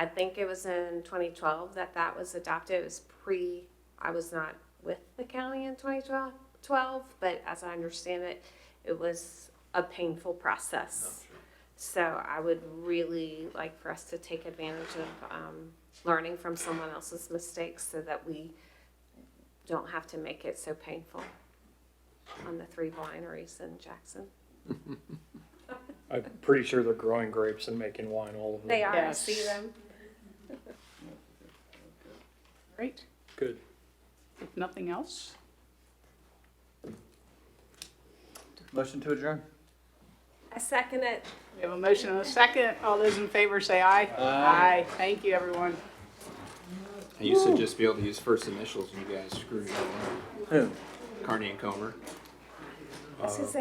I think it was in 2012 that that was adopted. It was pre, I was not with the county in 2012, but as I understand it, it was a painful process. So I would really like for us to take advantage of um, learning from someone else's mistakes so that we don't have to make it so painful on the three wineries in Jackson. I'm pretty sure they're growing grapes and making wine all of them. They are, I Yes. see them. Great, Good. if nothing else, Motion to adjourn? I second it. we have a motion and a second. All those in favor say aye. Aye. Thank you, everyone. I used to just be able to use first initials, and you guys screwed me up. Who? Carney and Comer. This is